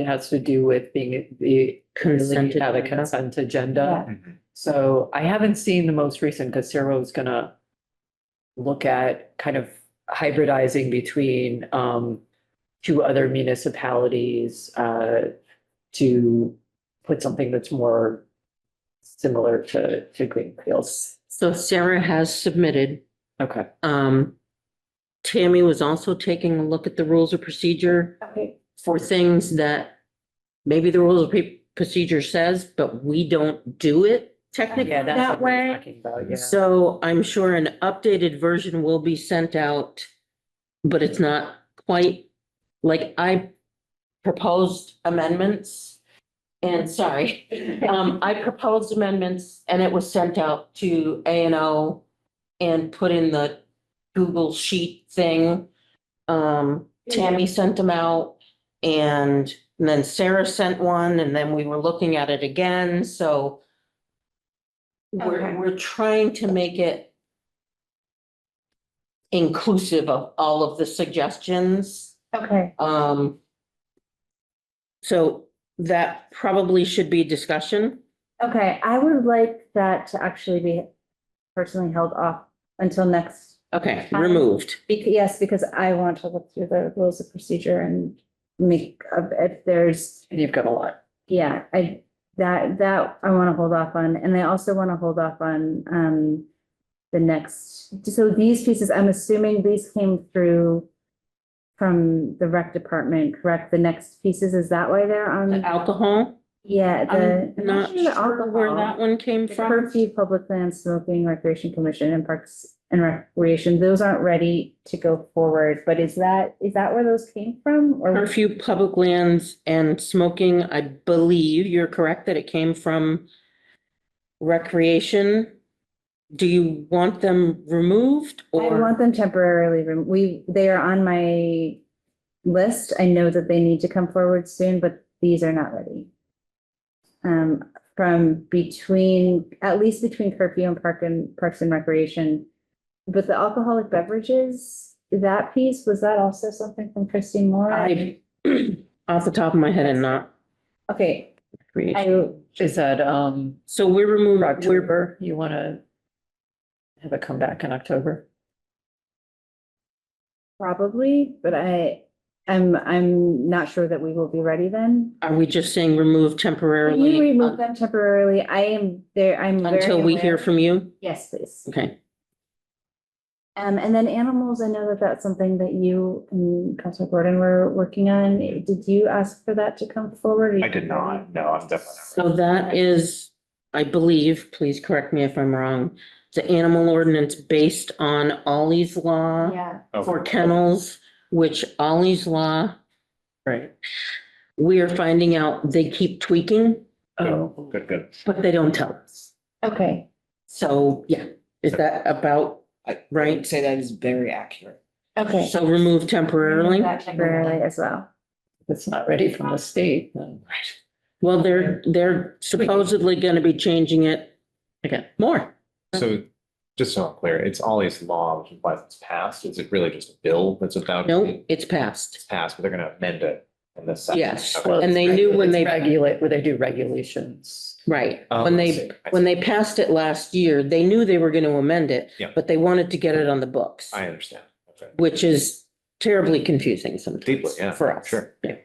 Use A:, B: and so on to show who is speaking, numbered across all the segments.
A: It has to do with being, the, currently
B: Consent
A: have a
B: agenda.
A: consent agenda. So I haven't seen the most recent, because Sarah was gonna look at kind of hybridizing between, um, two other municipalities, uh, to put something that's more similar to, to Greenfields.
B: So Sarah has submitted,
A: Okay.
B: um, Tammy was also taking a look at the rules of procedure
A: Okay.
B: for things that maybe the rules of pre- procedure says, but we don't do it technically
A: Yeah, that's
B: that
A: what we're
B: way.
A: talking about, yeah.
B: So I'm sure an updated version will be sent out, but it's not quite, like, I proposed amendments. And sorry, um, I proposed amendments and it was sent out to A and O and put in the Google Sheet thing. Um, Tammy sent them out and then Sarah sent one and then we were looking at it again, so we're,
C: Okay.
B: we're trying to make it inclusive of all of the suggestions.
C: Okay.
B: Um, so that probably should be discussion.
C: Okay, I would like that to actually be personally held off until next,
B: Okay,
C: Um,
B: removed.
C: bec- yes, because I want to look through the rules of procedure and make, of- if there's,
A: And you've got a lot.
C: yeah, I, that, that I want to hold off on, and I also want to hold off on, um, the next, so these pieces, I'm assuming these came through from the rec department, correct? The next pieces, is that why they're on?
B: The alcohol,
C: Yeah, Mm-hmm. the.
B: I'm not
C: actually the
B: sure where
C: alcohol-
B: that one came
C: the
B: from.
C: Curfew, public land, smoking, recreation commission and parks and recreation, those aren't ready to go forward, but is that, is that where those came from? Or,
B: Curfew, public lands and smoking, I believe you're correct that it came from recreation. Do you want them removed
C: I
B: or?
C: want them temporarily, rem- we, they are on my list, I know that they need to come forward soon, but these are not ready. Um, from between, at least between curfew and park and parks and recreation. But the alcoholic beverages, that piece, was that also something from Christine Moore?
B: I, off the top of my head and not
C: Okay,
B: creation.
C: I,
A: Is that, um,
B: So we're
A: for
B: removing, we're,
A: October, you want to have it come back in October?
C: Probably, but I, I'm, I'm not sure that we will be ready then.
B: are we just saying remove
C: Can you
B: temporarily
C: remove
B: un-
C: them temporarily? I am there, I'm. very
B: until we
C: aware-
B: hear from you?
C: Yes, please.
B: Okay.
C: Um, and then animals, I know that that's something that you and Councilor Gordon were working on. Did you ask for that to come forward?
D: I did not, no, I'm definitely not.
B: So that is, I believe, please correct me if I'm wrong, the animal ordinance based on Ollie's law
C: Yeah,
D: Oh.
B: for kennels, which Ollie's law,
A: Right.
B: we are finding out they keep tweaking,
A: Oh,
D: Good, good.
B: but they don't tell us.
C: okay.
B: So, yeah, is that about
E: I
B: right?
E: would say that is very accurate.
C: Okay.
B: So remove temporarily?
C: That Temporarily as well.
A: if it's not ready from the state, then
B: Well, they're, they're supposedly gonna be changing it
A: again,
B: more.
D: So just so I'm clear, it's Ollie's law, which implies it's passed. Is it really just a bill that's about?
B: No, it's
D: It's
B: passed.
D: passed, but they're gonna amend it in this. session.
B: Yes,
D: Okay.
B: and they knew when they,
A: regulate, where they do regulations.
B: right,
D: Oh,
B: when
D: I
B: they,
D: see. I
B: when
D: see.
B: they passed it last year, they knew they were gonna amend it.
D: Yeah.
B: But they wanted to get it on the books,
D: I understand. Okay.
B: which is terribly confusing
D: Deeply,
B: sometimes
D: yeah.
B: for us.
D: Sure.
B: Yeah.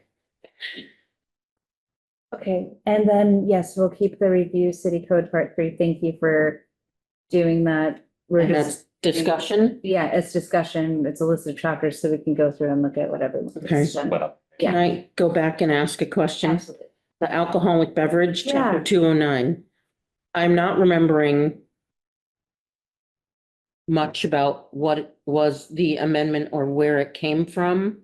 C: Okay, and then, yes, we'll keep the review city code part three. Thank you for doing that. We're
B: And
C: just,
B: that's discussion.
C: yeah, it's discussion, it's a list of chapters, so we can go through and look at whatever.
B: Okay.
D: But uh,
B: Can I go back and ask a question?
C: Absolutely.
B: The alcoholic beverage, chapter
C: Yeah.
B: two oh nine. I'm not remembering much about what was the amendment or where it came from.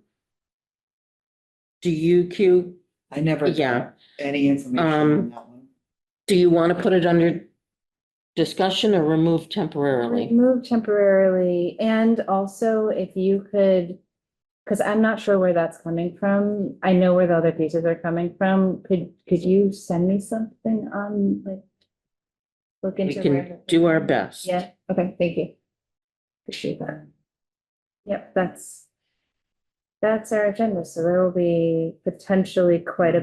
B: Do you, Q?
E: I never. got
B: Yeah.
E: Any information
B: Um,
E: on that one.
B: Do you want to put it under discussion or remove temporarily?
C: Move temporarily, and also if you could, because I'm not sure where that's coming from. I know where the other pieces are coming from. Could, could you send me something on, like? Look
B: We
C: into.
B: can
C: where-
B: do our best.
C: Yeah, okay, thank you. Appreciate that. Yep, that's, that's our agenda, so there will be potentially quite a